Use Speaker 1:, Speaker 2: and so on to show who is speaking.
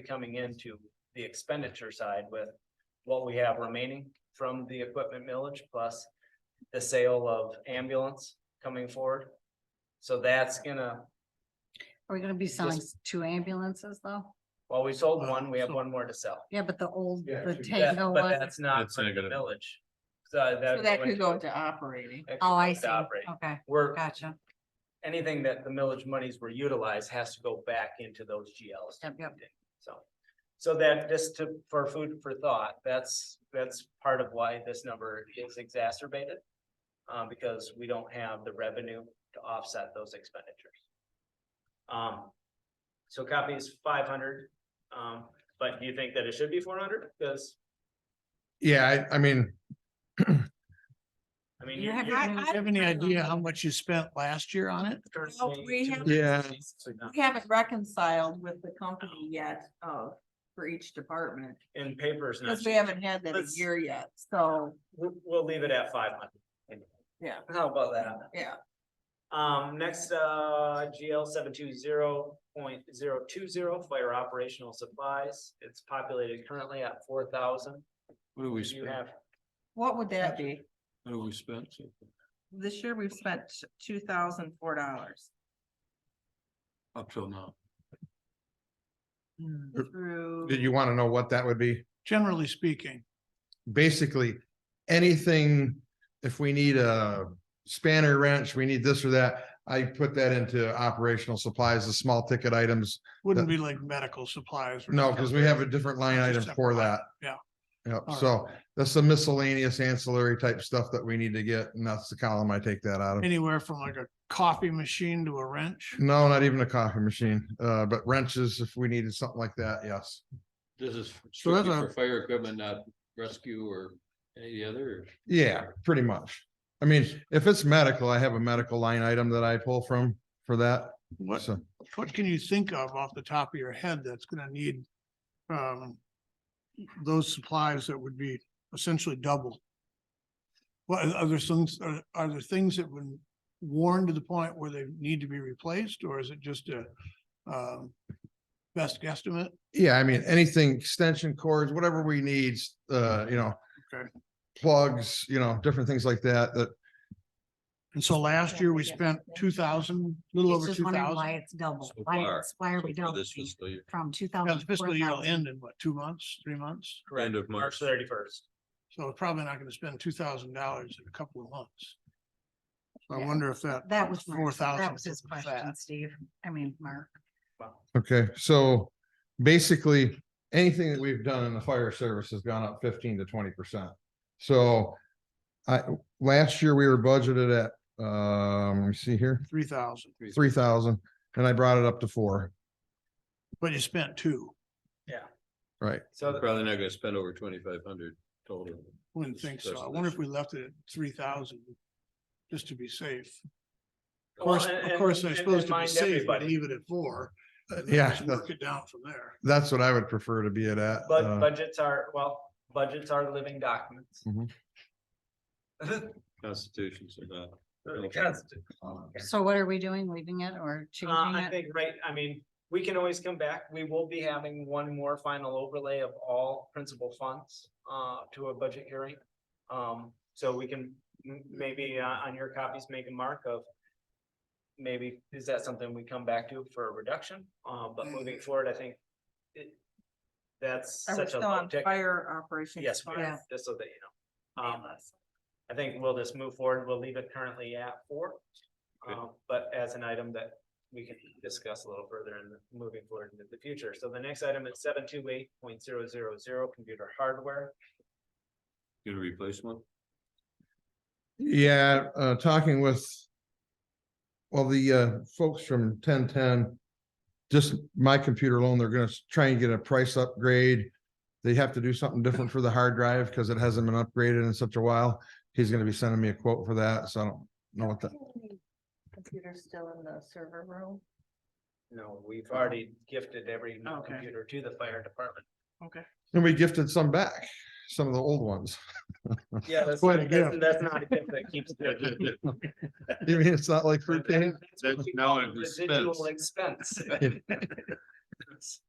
Speaker 1: be coming into the expenditure side with what we have remaining from the equipment millage plus the sale of ambulance coming forward. So that's gonna,
Speaker 2: Are we gonna be selling s- two ambulances though?
Speaker 1: well, we sold
Speaker 3: Wow,
Speaker 1: one, we have
Speaker 3: so-
Speaker 1: one more to sell.
Speaker 2: Yeah, but the old,
Speaker 3: Yeah,
Speaker 2: the
Speaker 3: two.
Speaker 1: That-
Speaker 2: Tango
Speaker 1: But
Speaker 2: one.
Speaker 1: that's not
Speaker 4: That's
Speaker 1: from
Speaker 4: not
Speaker 1: the
Speaker 4: gonna-
Speaker 1: village. So that.
Speaker 5: So that
Speaker 1: went
Speaker 5: could go to operating.
Speaker 1: that could
Speaker 2: Oh,
Speaker 1: go
Speaker 2: I
Speaker 1: to
Speaker 2: see.
Speaker 1: operate.
Speaker 2: Okay,
Speaker 1: We're,
Speaker 2: gotcha.
Speaker 1: anything that the millage monies were utilized has to go back into those GLs.
Speaker 2: Yep, yep.
Speaker 1: So, so that just to, for food for thought, that's, that's part of why this number is exacerbated. Uh, because we don't have the revenue to offset those expenditures. Um, so copy is five hundred, um, but do you think that it should be four hundred? Because,
Speaker 3: Yeah, I, I mean,
Speaker 1: I mean.
Speaker 2: You have
Speaker 1: you're-
Speaker 2: I-
Speaker 3: do you
Speaker 5: I
Speaker 3: have any
Speaker 5: don't
Speaker 3: idea
Speaker 5: know.
Speaker 3: how much you spent last year on it?
Speaker 1: you're
Speaker 5: No,
Speaker 1: saying
Speaker 5: we
Speaker 1: two-
Speaker 5: have-
Speaker 3: Yeah.
Speaker 5: We haven't reconciled with the company yet, uh, for each department,
Speaker 1: In papers. not
Speaker 5: because we
Speaker 1: cheap.
Speaker 5: haven't had that a
Speaker 1: Let's-
Speaker 5: year yet, so,
Speaker 1: We'll, we'll leave it at five hundred.
Speaker 5: Yeah.
Speaker 1: How about that?
Speaker 5: yeah.
Speaker 1: Um, next, uh, GL seven two zero point zero two zero, fire operational supplies. It's populated currently at four thousand.
Speaker 4: What do we
Speaker 1: You
Speaker 4: spend?
Speaker 1: have,
Speaker 5: What would that be?
Speaker 4: What do we spend? so far?
Speaker 5: This year we've spent two thousand four dollars
Speaker 4: Up till now.
Speaker 5: through.
Speaker 6: Did you want to know what that would be?
Speaker 3: Generally speaking,
Speaker 6: Basically, anything, if we need a spanner wrench, we need this or that. I put that into operational supplies, the small ticket items.
Speaker 3: wouldn't be like medical supplies. or
Speaker 6: No, because we have a different line
Speaker 3: It's a
Speaker 6: item for
Speaker 3: separate line,
Speaker 6: that.
Speaker 3: yeah.
Speaker 6: Yep,
Speaker 3: All
Speaker 6: so that's some miscellaneous ancillary type stuff that we need to get, and that's the column I take that out of.
Speaker 3: Anywhere from like a coffee machine to a wrench.
Speaker 6: No, not even a coffee machine, uh, but wrenches, if we needed something like that, yes.
Speaker 4: This is
Speaker 3: So that's
Speaker 4: strictly
Speaker 3: a-
Speaker 4: for fire equipment, not rescue or any other. or-
Speaker 6: Yeah, pretty much. I mean, if it's medical, I have a medical line item that I pull from for that.
Speaker 3: What,
Speaker 6: So,
Speaker 3: what can you think of off the top of your head that's gonna need um those supplies that would be essentially double? What are there things, are are there things that would worn to the point where they need to be replaced, or is it just a um best guesstimate?
Speaker 6: yeah, I mean, anything, extension cords, whatever we need, uh, you know.
Speaker 3: Okay.
Speaker 6: Plugs, you know, different things like that, that,
Speaker 3: And so last year we
Speaker 5: Yeah.
Speaker 3: spent two thousand, a little
Speaker 2: He's
Speaker 3: over
Speaker 2: just
Speaker 3: two
Speaker 2: wondering why
Speaker 3: thousand.
Speaker 2: it's double.
Speaker 4: So
Speaker 2: Why,
Speaker 4: far,
Speaker 2: it's- why are we
Speaker 4: so far
Speaker 2: doubling
Speaker 4: This fiscal year,
Speaker 2: from two
Speaker 3: Yeah,
Speaker 2: thousand?
Speaker 3: the fiscal year will end in what, two months, three months?
Speaker 4: end of
Speaker 1: March
Speaker 4: March.
Speaker 1: thirty first.
Speaker 3: So we're probably not gonna spend two thousand dollars in a couple of months. So I
Speaker 2: Yeah.
Speaker 3: wonder if that.
Speaker 2: That was,
Speaker 3: Four
Speaker 2: Mark.
Speaker 3: thousand
Speaker 2: that was his
Speaker 3: was
Speaker 2: question,
Speaker 3: that.
Speaker 2: Steve. I mean, Mark.
Speaker 6: okay, so basically, anything that we've done in the fire service has gone up fifteen to twenty percent. So I, last year we were budgeted at, um, let me see here,
Speaker 3: Three thousand,
Speaker 6: three thousand, and I brought it up to four,
Speaker 3: but you spent two,
Speaker 6: right?
Speaker 1: So th-
Speaker 4: Probably not gonna spend over twenty-five hundred total.
Speaker 3: wouldn't think so. I wonder if we left it at three thousand, just to be safe. Of
Speaker 1: Well,
Speaker 3: course,
Speaker 1: and-
Speaker 3: of course,
Speaker 1: and-
Speaker 3: I
Speaker 1: and
Speaker 3: suppose to be
Speaker 1: mind
Speaker 3: safe, but
Speaker 1: everybody.
Speaker 3: leave it at four. and then
Speaker 6: Yeah,
Speaker 3: just
Speaker 6: that-
Speaker 3: Work it down from there.
Speaker 6: that's what I would prefer to be it at.
Speaker 1: but
Speaker 6: uh,
Speaker 1: budgets are, well, budgets are living documents.
Speaker 6: Mhm.
Speaker 4: Constitutions are not.
Speaker 1: The Constitution.
Speaker 2: So what are we doing? Leaving it or
Speaker 1: Uh,
Speaker 2: changing
Speaker 1: I
Speaker 2: it?
Speaker 1: think, right, I mean, we can always come back. We will be having one more final overlay of all principal funds uh to a budget hearing. Um, so we can m- maybe uh on your copies, make a mark of. Maybe is that something we come back to for a reduction? Uh, but moving forward, I think it. That's
Speaker 5: Mm-hmm. Are we
Speaker 1: such a
Speaker 5: still
Speaker 1: low
Speaker 5: on
Speaker 1: tick.
Speaker 5: fire operations?
Speaker 1: Yes, we are,
Speaker 5: costs?
Speaker 1: just so that you know. Um,
Speaker 5: Payless.
Speaker 1: I think we'll just move forward. We'll leave it currently at four.
Speaker 4: Good.
Speaker 1: Um, but as an item that we can discuss a little further and moving forward into the future. So the next item is seven two eight point zero zero zero computer hardware.
Speaker 4: Gonna replace one?
Speaker 6: Yeah, uh, talking with. Well, the uh, folks from ten ten. Just my computer alone, they're gonna s- try and get a price upgrade. They have to do something different for the hard drive because it hasn't been upgraded in such a while. He's gonna be sending me a quote for that, so I don't know what that.
Speaker 5: Computer's still in the server room.
Speaker 1: No, we've already gifted every new
Speaker 5: Okay.
Speaker 1: computer to the fire department.
Speaker 6: And we gifted some back, some of the old ones.
Speaker 1: Yeah, that's,
Speaker 3: quite a
Speaker 1: that's
Speaker 3: gift.
Speaker 1: that's not a gift that keeps.
Speaker 6: You mean, it's not like we're paying?
Speaker 4: That's now an
Speaker 1: Residual
Speaker 4: expense.
Speaker 1: expense.